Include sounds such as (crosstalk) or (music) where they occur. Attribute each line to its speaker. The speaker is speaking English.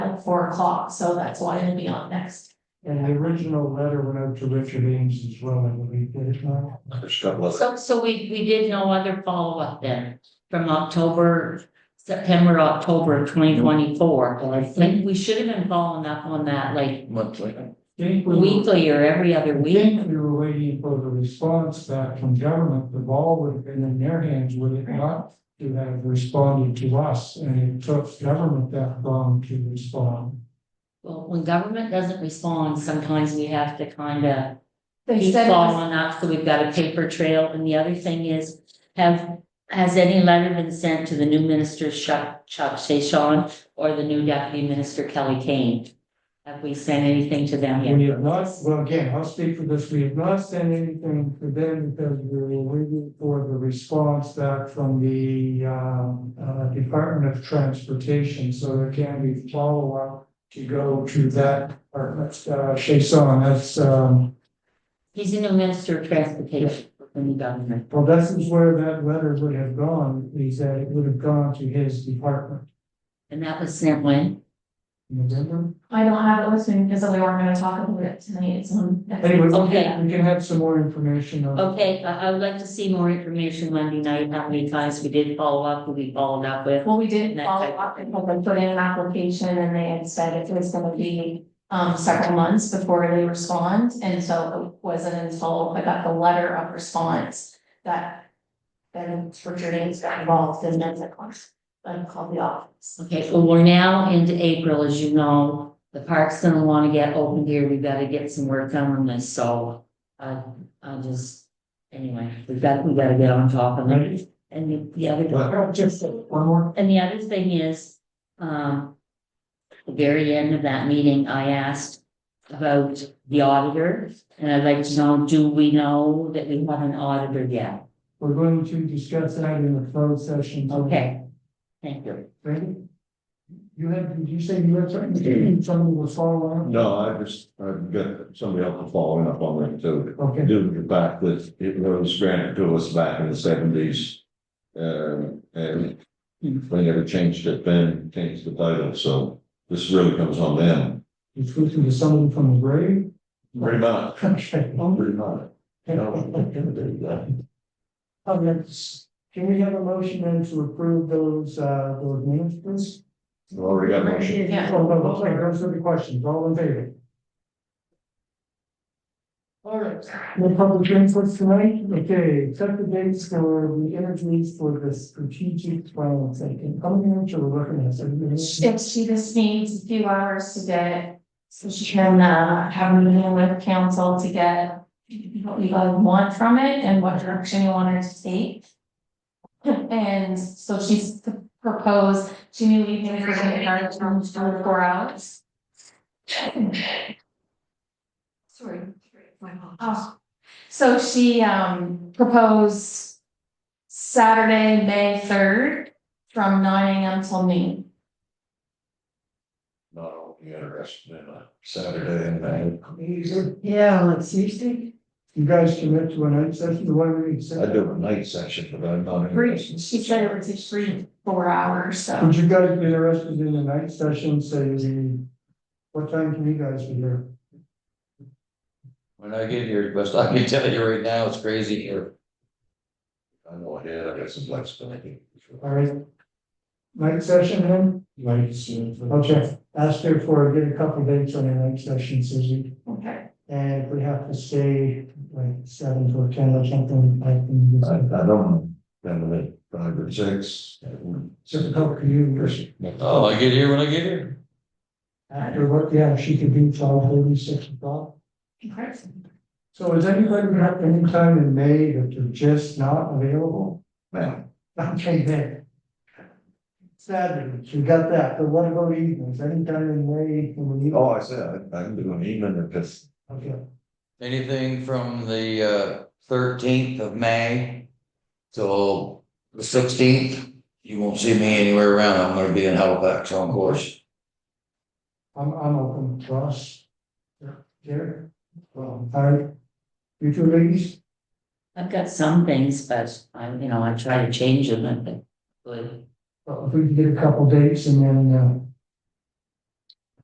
Speaker 1: at four o'clock, so that's why it'll be on next.
Speaker 2: And the original letter went out to Richard Ames as well, I believe, did it not?
Speaker 3: So, so we, we did no other follow-up then, from October, September, October of twenty twenty-four.
Speaker 2: Well, I
Speaker 3: Like,
Speaker 2: think,
Speaker 3: we should have been following up on that like
Speaker 4: monthly.
Speaker 2: think we were,
Speaker 3: weekly or every other
Speaker 2: I
Speaker 3: week.
Speaker 2: think we were waiting for the response back from government, the ball would have been in their hands, would it not? To have responded to us, and it took government that long to respond.
Speaker 3: Well, when government doesn't respond, sometimes we have to kind of
Speaker 1: They
Speaker 3: keep
Speaker 1: said it was,
Speaker 3: following up, so we've got a paper trail. And the other thing is, have, has any letter been sent to the new minister Chuck, Chuck Sheshon or the new deputy minister Kelly Kane? Have we sent anything to them yet?
Speaker 2: We have not, well, again, I'll speak for this, we have not sent anything to them because we were waiting for the response back from the um uh Department of Transportation, so there can be follow-up to go to that department, uh Chason, that's um,
Speaker 3: He's the new minister of transportation in the government.
Speaker 2: well, this is where that letter would have gone, he said it would have gone to his department,
Speaker 3: And that was sent when?
Speaker 2: remember?
Speaker 1: I don't have it with me because we weren't gonna talk about it tonight, it's on. next
Speaker 2: Anyway, we
Speaker 3: Okay.
Speaker 2: can, we can have some more information on.
Speaker 3: Okay, I, I would like to see more information Monday night, how many times we did follow up, who we followed up with.
Speaker 1: Well, we did
Speaker 3: Next
Speaker 1: follow
Speaker 3: item.
Speaker 1: up and had them put in an application and they had said it was gonna be um several months before they respond. And so it wasn't until I got the letter of response that then Richard Ames got involved and then the course, then called the office.
Speaker 3: Okay, well, we're now into April, as you know, the park's gonna wanna get open here, we gotta get some work done on this, so. Uh, I just, anyway, we got, we gotta get on top of it,
Speaker 2: Right?
Speaker 3: and the- the other.
Speaker 2: Well, Just one more
Speaker 3: And the other thing is, um, the very end of that meeting, I asked about the auditor. And I'd like to know, do we know that we have an auditor yet?
Speaker 2: We're going to discuss that in the closed session.
Speaker 3: Okay, thank you.
Speaker 2: Ready? You had, did you say you had something, something was following?
Speaker 4: No, I just, I've got somebody else following up on that too.
Speaker 2: Okay,
Speaker 4: Due to the fact that it was granted to us back in the seventies. Um, and they never changed it then, changed the title, so this really comes on them.
Speaker 2: you flew through to someone from the grave? (laughs)
Speaker 4: Pretty much,
Speaker 2: Okay.
Speaker 4: pretty much. You know,
Speaker 2: Okay, (laughs) let's- Can we have a motion then to approve those, uh, those minutes, please?
Speaker 4: We've Already got a motion.
Speaker 1: Yeah.
Speaker 2: Oh, no, okay, those are the questions, all in favor? All right, no public input tonight, okay, set the dates for the interviews for the strategic plan, thinking, how many minutes are we looking at? Everybody?
Speaker 1: If she just needs a few hours to get, so she can uh have a meeting with council to get. What we guys want from it and what direction you want her to take. And so she's proposed, she knew we knew we were gonna start from two to four hours. Sorry, my apologies. So she um proposed Saturday, May third, from nine AM till noon.
Speaker 4: Not only interested in a Saturday and night.
Speaker 2: Yeah, on Tuesday. You guys commit to a night session, the one we
Speaker 4: I
Speaker 2: said,
Speaker 4: do a night session, but I'm not
Speaker 1: Three,
Speaker 4: interested.
Speaker 1: she said it would take three, four hours, so
Speaker 2: would you guys be interested in a night session, say, what time can you guys be here?
Speaker 5: When I get here, best I can (laughs) tell you right now, it's crazy here.
Speaker 4: I know I did, I got some flexibility.
Speaker 2: All right. Night session then? Night session. Okay, ask her for, get a couple dates on your night session, Susie,
Speaker 1: okay.
Speaker 2: and if we have to stay like seven to ten or something, I can.
Speaker 4: I, I don't, then with five or six.
Speaker 2: Just a couple of you,
Speaker 5: Oh, I get here when I get here.
Speaker 2: after work, yeah, she could do twelve, thirty, six o'clock. So is anybody got any time in May that they're just not available?
Speaker 4: Man,
Speaker 2: Okay, then. Saturdays, you got that, but what about evenings, any time in May, when we,
Speaker 4: oh, I said, I can do an evening if it's,
Speaker 2: okay,
Speaker 5: Anything from the uh thirteenth of May till the sixteenth, you won't see me anywhere around. I'm gonna be in Halifax on course.
Speaker 2: I'm, I'm open, Ross. Jerry, well, Harry, you two ladies,
Speaker 3: I've got some things, but I, you know, I try to change them, but.
Speaker 2: well, if we can get a couple dates and then, uh,